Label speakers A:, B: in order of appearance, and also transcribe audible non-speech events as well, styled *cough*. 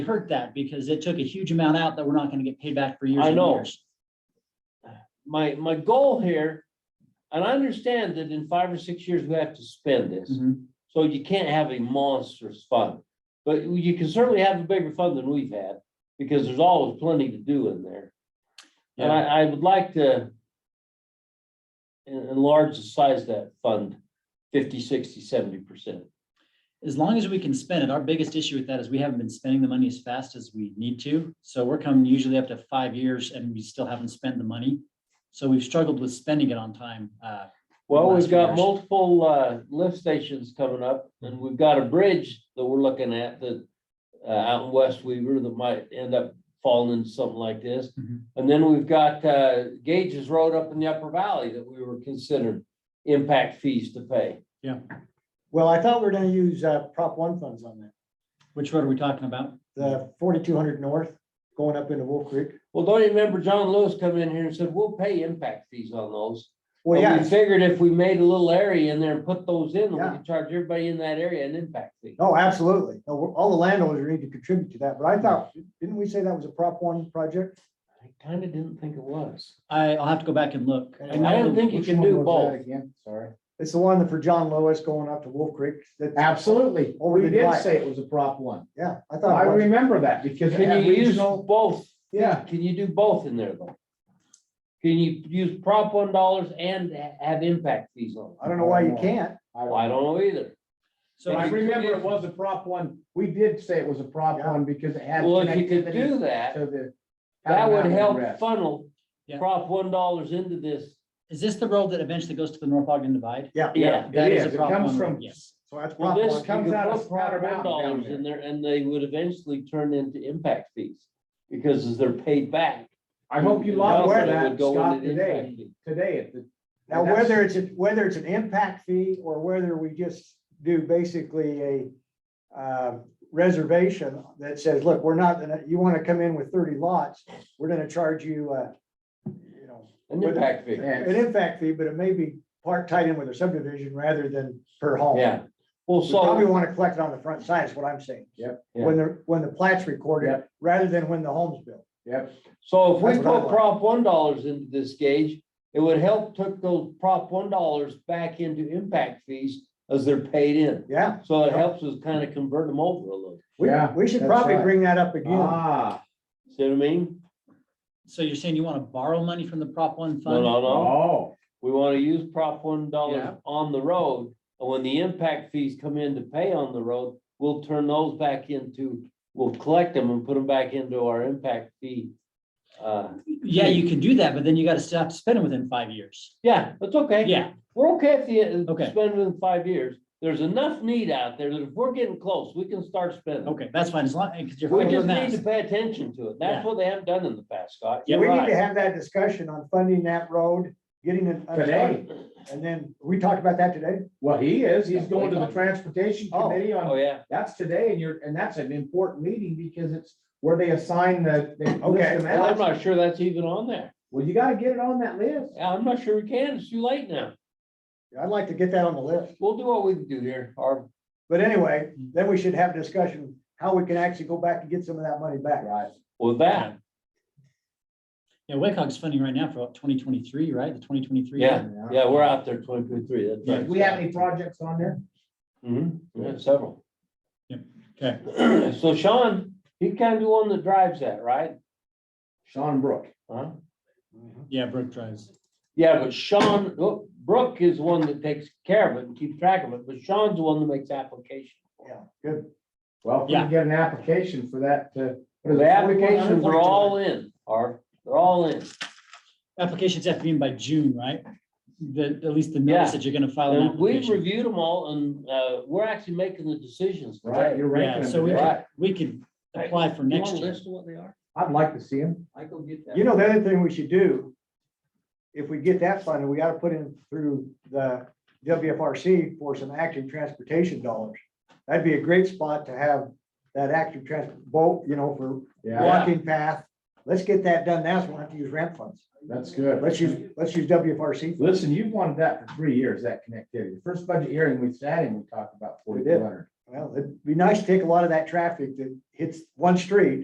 A: hurt that because it took a huge amount out that we're not gonna get paid back for years
B: I
A: and
B: know.
A: years.
B: my, my goal here, and I understand that in five or six years, we have to spend this.
A: Mhm.
B: So you can't have a monstrous fund, but you can certainly have a bigger fund than we've had, because there's always plenty to do in there. And I, I would like to en- enlarge the size of that fund 50, 60, 70 percent.
A: As long as we can spend it, our biggest issue with that is we haven't been spending the money as fast as we need to. So we're coming usually up to five years and we still haven't spent the money. So we've struggled with spending it on time. Uh,
B: Well,
A: Last
B: we've
A: few
B: got
A: years.
B: multiple, uh, lift stations coming up, and we've got a bridge that we're looking at that, uh, out in West Weaver that might end up falling into something like this.
C: Mm-hmm.
A: Mhm.
B: And then we've got, uh, Gages Road up in the Upper Valley that we were considered impact fees to pay.
C: Well, I thought we were gonna use uh, Prop One funds on that,
A: which road are we talking about?
C: the forty-two hundred north going up into Wolf Creek.
B: Well, don't you remember John Lewis come in here and said, we'll pay impact fees on those? But
C: Well, yeah,
B: Oh, We figured if we made a little area in there and put those in, we
C: Yeah.
B: could charge everybody in that area an impact fee.
C: oh, absolutely. No, we're- All the landowners need to contribute to that, but I thought, didn't we say that was a Prop One project?
B: I kinda didn't think it was.
A: I, I'll have to go back and look.
C: I
B: I
A: know
B: don't
A: that-
B: think you
D: Which
B: can
D: one
B: do
D: was
B: both.
D: that Again, sorry.
C: It's the one that for John Lewis going up to Wolf Creek. that-
D: Absolutely.
C: Over
D: We
C: the
D: did
C: divide.
D: say it was a prop one.
C: Yeah, I
D: I
C: thought, it was.
D: remember that because we
B: Can
D: had
B: you use
D: regional,
B: both?
D: yeah,
B: Can you do both in there though? Can you use prop one dollars and ha- have impact fees on?
C: I don't know why you can't.
D: I
B: it? I don't know either.
A: So
D: but I
A: I-
D: remember it was a prop one. We did say it was a prop
C: Yeah.
D: one because it had
B: Well, if you could do
D: connectivity
B: that,
D: to the.
B: that would
D: Mountain
B: help
D: Rest.
B: funnel
A: Yeah.
B: prop one dollars into this.
A: is this the road that eventually goes to the North Ogden Divide?
C: Yeah.
B: Yeah.
A: That
D: It
A: is a
D: is. It
A: Prop
D: comes
A: One road,
D: from-
A: Yes.
C: So that's
B: Well,
C: Prop
B: this
C: One.
B: you
D: comes
B: could
D: out of
B: put prop
D: Powder
B: one
D: Mountain down
B: dollars
D: there.
B: in there and they would eventually turn into impact fees because they're paid back.
D: I hope you
B: And
D: logged
B: also
C: aware
D: aware
B: it
D: that,
B: would go
D: Scott,
B: into the impact
D: today,
B: fee.
D: today at the.
C: Now,
D: that's-
C: whether it's, a- whether it's an impact fee or whether we just do basically a uh, reservation that says, look, we're not, gonna you want to come in with thirty lots, we're gonna charge you, uh, you know,
B: An
C: Whether-
B: impact fee.
C: an impact fee, but it may be part tied in with a subdivision rather than per home.
B: Yeah. Well,
C: We
B: so.
C: probably want to collect it on the front side is what I'm saying.
D: Yep.
C: When the, when the plat's recorded,
D: Yep.
C: rather than when the home's built.
D: Yep,
B: So if we
C: That's what I
B: put
C: want.
B: prop one dollars into this gauge, it would help took those prop one dollars back into impact fees as they're paid in.
C: Yeah,
B: So it helps us kind of convert them over a little.
C: we,
D: Yeah,
C: we should
D: that's
C: probably
D: right.
C: bring that up again.
D: ah,
B: See what I mean?
A: So you're saying you want to borrow money from the Prop One
B: No,
A: fund?
B: no, no.
D: oh,
B: We want to use prop one
A: Yeah.
B: dollars on the road. And when the impact fees come in to pay on the road, we'll turn those back into, we'll collect them and put them back into our impact fee. Uh,
A: Yeah, you can do that, but then you got to stop spending within five years.
B: yeah, that's okay.
A: Yeah,
B: We're okay if you
A: Okay.
B: spend within five years. There's enough need out there that if we're getting close, we can start spending.
A: okay, that's fine, as long, because Oh, you're.
B: We
A: further
B: just
A: than that.
B: need to pay attention to it. That's
A: Yeah.
B: what they haven't done in the past, Scott.
C: We
B: You're
C: need to
B: right.
C: have that discussion on funding that road, getting it.
D: today,
C: And then, we talked about that today?
D: well, he is, he's going to the transportation
C: Oh.
D: committee on
B: Oh, yeah.
D: That's today and you're, and that's an important meeting because it's where they assign the. they list
C: Okay.
D: them
B: Well, I'm
D: out.
B: not sure that's even on there.
D: Well, you gotta get it on that list.
B: I'm not sure we can. It's too late now.
C: I'd like to get that on the list.
B: We'll do what we can do here. Our,
C: But anyway,
D: Mm.
C: then we should have a discussion, how we can actually go back and get some of that money back.
D: Right.
B: with that,
A: Yeah, WACOG's funding right now for about twenty twenty-three, right? The twenty twenty-three.
B: Yeah. yeah, we're out there twenty-three, that's
D: Do
B: right.
D: we have any projects on there?
B: Mhm. we have several.
A: Yep. Okay.
B: *clears throat* So Sean, he kind of the one that drives that, right?
D: Sean Brook.
B: Huh?
A: Yeah, Brook drives.
B: Yeah, but Sean, oh, Brooke is the one that takes care of it and keeps track of it, but Sean's the one that makes application.
C: Yeah.
D: Well, if we
A: Yeah.
D: can get an application for that, uh. what is
B: The
D: it,
B: applications are
D: 4100?
B: all in, are, they're all in.
A: Applications have to be in by June, right? The, at least the notice
B: Yeah.
A: that you're gonna file an
B: And we've
A: application.
B: reviewed them all and, uh, we're actually making the decisions.
D: Right,
B: today.
D: you're ranking
A: Yeah,
D: them
A: so we
D: today.
A: could, we could apply for
B: You
A: next
B: want a
A: year.
B: List of what they are?
D: I'd like to see him.
B: I go get that.
C: You know, the other thing we should do, if we get that funded, we gotta put in through the WFRC for some active transportation dollars. That'd be a great spot to have that active trans, boat, you know, for
D: Yeah,
B: Yeah.
C: walking path. Let's get that done now, so we don't have to use ramp funds.
D: that's good.
C: Let's use, let's use WFRC.
D: Listen, you've wanted that for three years, that connectivity. The First budget hearing we sat in, we talked about
C: We
D: forty
C: did.
D: two hundred.
C: Well, it'd be nice to take a lot of that traffic that hits one street